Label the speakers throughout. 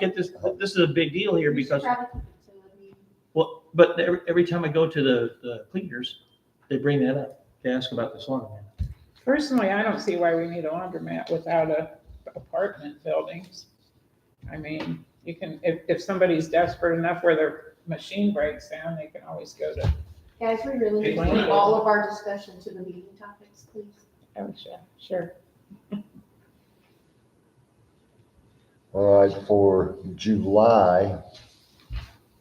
Speaker 1: get this, this is a big deal here
Speaker 2: We should
Speaker 1: because,
Speaker 2: have a facility.
Speaker 1: well, but every, every time I go to the, the cleaners, they bring that up. They ask about the salon.
Speaker 3: Personally, I don't see why we need a laundromat without a apartment buildings. I mean, you can, if, if somebody's desperate enough where their machine breaks down, they can always go to.
Speaker 2: Guys, we really need to
Speaker 3: Hey,
Speaker 2: keep all of our discussion to the meeting topics, please.
Speaker 3: Oh, sure, sure.
Speaker 4: All right, for July,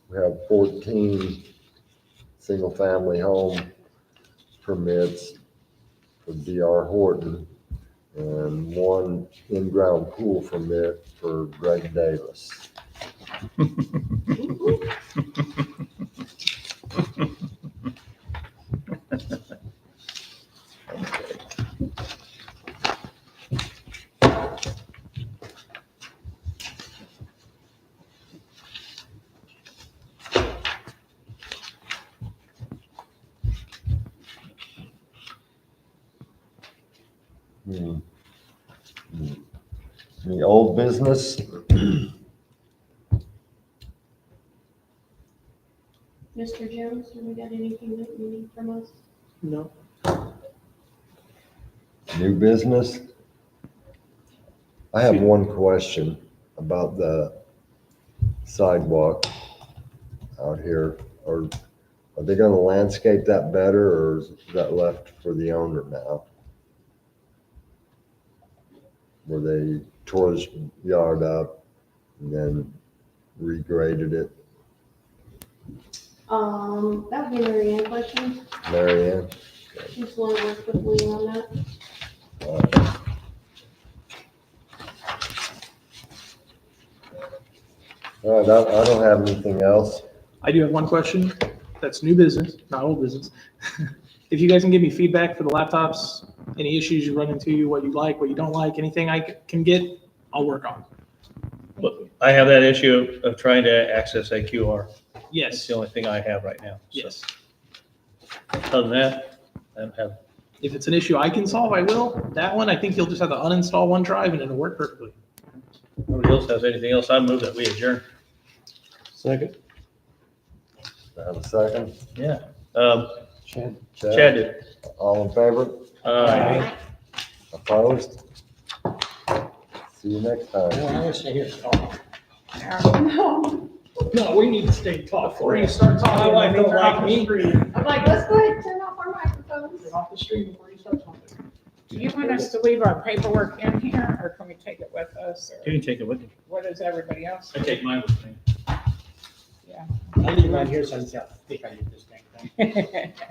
Speaker 4: we have fourteen single-family home permits for DR Horton and one in-ground pool permit for Greg Davis. Hmm. Hmm. Any old business?
Speaker 2: Mr. Jones, have we got anything that you need from us?
Speaker 1: No.
Speaker 4: New business? I have one question about the sidewalk out here. Are, are they gonna landscape that better or is that left for the owner now? Where they tore his yard up and then regraded it,
Speaker 2: Um, that would be Mary Ann question.
Speaker 4: Mary Ann?
Speaker 2: She's the one who worked with Lee on that.
Speaker 4: Uh, All right, I, I don't have anything else.
Speaker 5: I do have one question. That's new business, not old business. If you guys can give me feedback for the laptops, any issues you run into, what you like, what you don't like, anything I c- can get, I'll work on.
Speaker 1: I have that issue of trying to access a QR. That's
Speaker 5: Yes,
Speaker 1: the only thing I have right now. So,
Speaker 5: yes.
Speaker 1: Other than that, I don't have,
Speaker 5: If it's an issue I can solve, I will. That one, I think you'll just have to uninstall OneDrive and it'll work perfectly.
Speaker 1: nobody else has anything else. I move that we adjourn.
Speaker 6: Second.
Speaker 4: Do I Have a second?
Speaker 1: Yeah. Um,
Speaker 6: Chad.
Speaker 1: Chad did.
Speaker 4: All in favor?
Speaker 1: Uh,
Speaker 4: Opposed? See you next time.
Speaker 6: No, I wish I hear talk.
Speaker 2: No,
Speaker 6: No, we need to stay talk.
Speaker 5: Before you start talking,
Speaker 6: My wife don't
Speaker 5: they're off
Speaker 6: like
Speaker 5: the
Speaker 6: me.
Speaker 5: screen.
Speaker 2: I'm like, let's go ahead and turn off our microphones.
Speaker 5: They're off the screen before you start talking.
Speaker 3: Do you want us to leave our paperwork in here or can we take it with us?
Speaker 1: you
Speaker 3: Or
Speaker 1: can take it with you.
Speaker 3: what does everybody else?
Speaker 1: I take mine with me.
Speaker 6: I leave mine here so I can- I think I need this thing.
Speaker 3: All